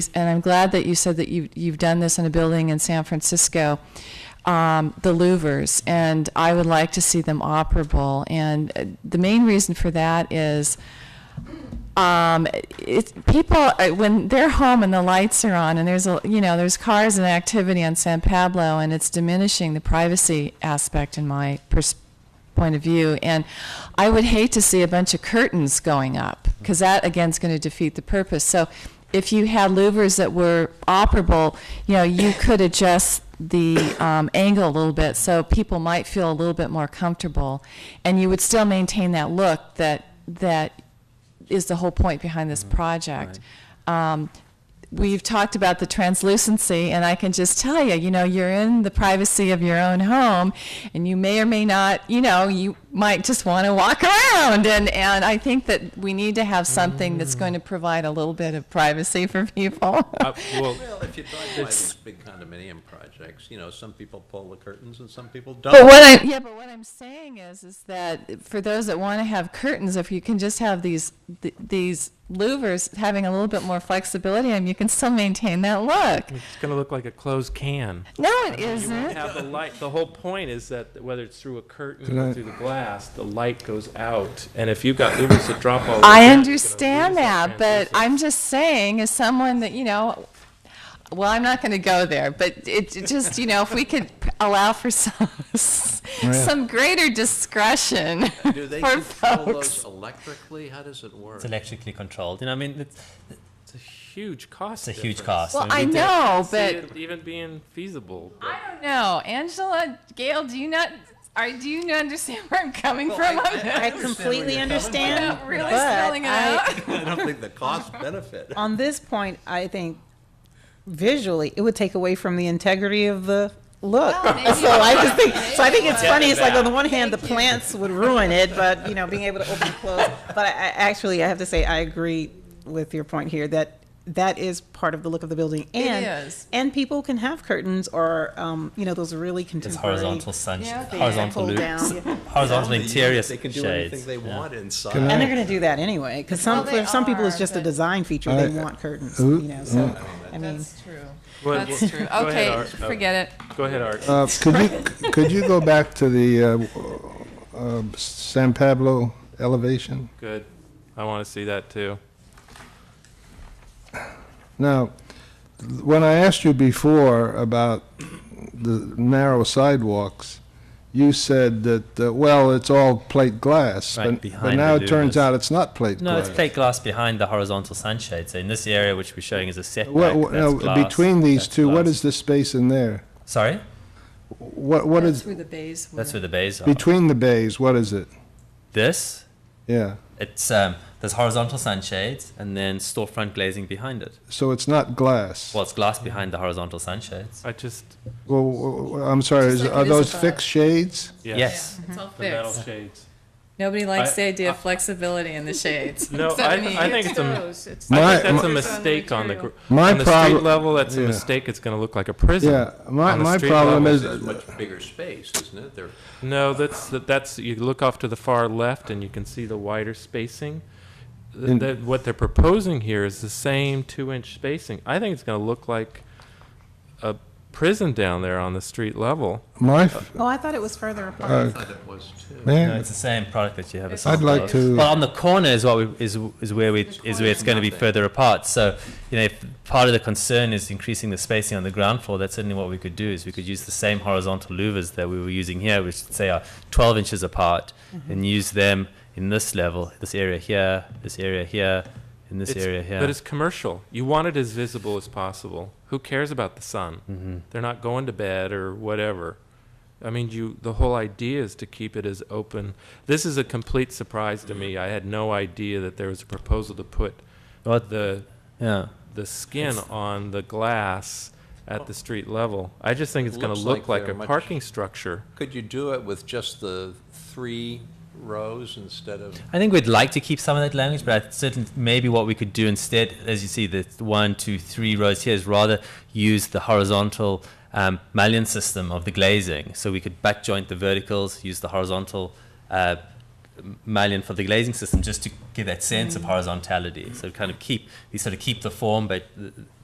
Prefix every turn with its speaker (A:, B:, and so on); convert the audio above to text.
A: and I'm glad that you said that you, you've done this in a building in San Francisco, um, the louvers, and I would like to see them operable. And uh, the main reason for that is um, it's people uh, when they're home and the lights are on and there's a you know there's cars and activity on San Pablo and it's diminishing the privacy aspect in my pers- point of view and I would hate to see a bunch of curtains going up because that again is going to defeat the purpose so if you had louvers that were operable you know you could adjust the um, angle a little bit so people might feel a little bit more comfortable and you would still maintain that look that that is the whole point behind this
B: Mm-hmm.
A: project. Um, We've talked about the translucency, and I can just tell you, you know, you're in the privacy of your own home, and you may or may not, you know, you might just want to walk around. And, and I think that we need to have something that's going to provide a little bit of privacy for people.
B: Mm. Uh, Well,
C: Well, if you drive by these big condominium projects, you know, some people pull the curtains and some people don't.
A: But what I yeah, but what I'm saying is, is that for those that want to have curtains, if you can just have these th- these louvers having a little bit more flexibility, and you can still maintain that look.
B: it's going to look like a closed can.
A: No, it isn't.
B: Have the light. The whole point is that whether it's through a curtain or through the glass, the light goes out. And if you've got lumens that drop all.
A: I understand that, but I'm just saying, as someone that you know, well, I'm not going to go there, but it, it just you know, if we could p- allow for some some greater discretion
C: Do they
A: for
C: control
A: folks.
C: those electrically? How does it work?
D: It's electrically controlled. You know, I mean, it's,
B: It's a huge cost.
D: it's a huge
B: difference.
D: cost.
A: Well,
D: mean,
A: I
D: we did-
A: know,
B: See
A: but
B: it even being feasible. but-
A: I don't know, Angela, Gail. Do you not? Are do you not understand where I'm coming from? I,
C: I-
A: am
C: I-
E: I
C: understand where
E: completely
C: you're coming
E: understand.
A: not really
E: but
A: spelling it
E: I-
A: out.
C: I don't think the cost benefit.
E: On this point, I think visually, it would take away from the integrity of the look.
A: maybe-
E: So I just think, so I think it's funny, it's like on the one hand, the
A: Thank you.
E: plants would ruin it, but, you know, being able to open and close. But I, I actually, I have to say, I agree with your point here that that is part of the look of the building. and
A: is.
E: And people can have curtains or, um, you know, those really
D: It's
E: contemporary.
D: horizontal sun,
A: Yeah, okay.
D: horizontal
E: Pull
D: loops,
E: down. yeah.
D: horizontal interior
C: They can do
D: shades.
C: anything they
D: yeah.
C: want inside.
E: And they're going to do that anyway, because some,
A: Well, they
E: for some people, it's
A: are,
E: just a
A: but-
E: design feature. They
F: I-
E: want curtains,
F: Ooh,
E: you know, so, I mean.
A: That's true.
B: Well,
A: That's
B: well,
A: true.
B: go ahead,
A: Okay,
B: Art. Oh,
A: forget it.
B: Go ahead, Art.
F: Uh, Could you, could you go back to the uh, uh, San Pablo elevation?
B: Good. I want to see that too.
F: Now, when I asked you before about the narrow sidewalks, you said that, uh, well, it's all plate glass.
D: Right,
F: but- But
D: behind
F: now
D: the
F: it turns
D: louvers.
F: out it's not plate
D: No,
F: glass.
D: it's plate glass behind the horizontal sunshade. So in this area, which we're showing as a setback,
F: What- what-
D: that's
F: no,
D: glass,
F: uh, Between these
D: that's
F: two, what
D: glass.
F: is the space in there?
D: Sorry,
F: What, what is,
A: where the bays were.
D: that's where the bays are.
F: between the bays, what is it?
D: this,
F: Yeah,
D: it's um, there's horizontal sunshades and then storefront glazing behind it.
F: so it's not glass.
D: Well, it's glass behind the horizontal sunshades.
B: I just,
F: Well, w- w- I'm sorry,
A: Just
F: is-
A: like it
F: are
A: is
F: those
A: above.
F: fixed shades?
B: yes.
D: Yes.
A: It's all
B: The metal
A: fixed.
B: shades.
A: Nobody likes
B: I-
A: the idea of
B: I-
A: flexibility in the shades.
B: No,
A: except
B: I-
A: me.
B: I think it's a-
F: My-
B: I think that's a
F: my-
B: mistake on the, gr-
F: My
B: on the street
F: problem-
B: level, that's a
F: yeah.
B: mistake. It's going to look like a prison.
F: Yeah, my,
B: on the
F: my
B: street
F: problem
B: level.
F: is,
C: It's much bigger space, isn't it? They're
B: No, that's that- that's you look off to the far left and you can see the wider spacing. Th-
F: In-
B: that- what they're proposing here is the same two-inch spacing. I think it's going to look like a prison down there on the street level.
F: my,
D: Uh,
F: f-
E: Oh, I thought it was further apart.
F: uh,
C: thought it was too.
D: No,
F: man,
D: it's the same product that you have. a
A: I'd
D: sample
F: like
D: of.
F: to-
D: Well, on the corner is what we, is is where we is where it's going to be further apart. So you know, if part of the concern is increasing the spacing on the ground floor, that's certainly what we could do. Is we could use the same horizontal louvers that we were using here, which say are 12 inches apart,
F: Mm-hmm.
D: and use them in this level, this area here, this area here, in this
B: It's-
D: area here.
B: But it's commercial. You want it as visible as possible. Who cares about the sun?
D: Mm-hmm.
B: They're not going to bed or whatever. I mean, you. The whole idea is to keep it as open. This is a complete surprise to me. I had no idea that there was a proposal to put
D: Well,
B: the
D: yeah.
B: the skin on the glass at the street level. I just think it's going to
C: Looks
B: look like
C: like
B: a
C: they're much-
B: parking structure.
C: Could you do it with just the three rows instead of?
D: I think we'd like to keep some of that language, but I certainly maybe what we could do instead, as you see, the one, two, three rows here is rather use the horizontal um, mullion system of the glazing. So we could back joint the verticals, use the horizontal uh, m- mullion for the glazing system, just to give that sense of horizontality. So kind of keep we sort of keep the form, but uh,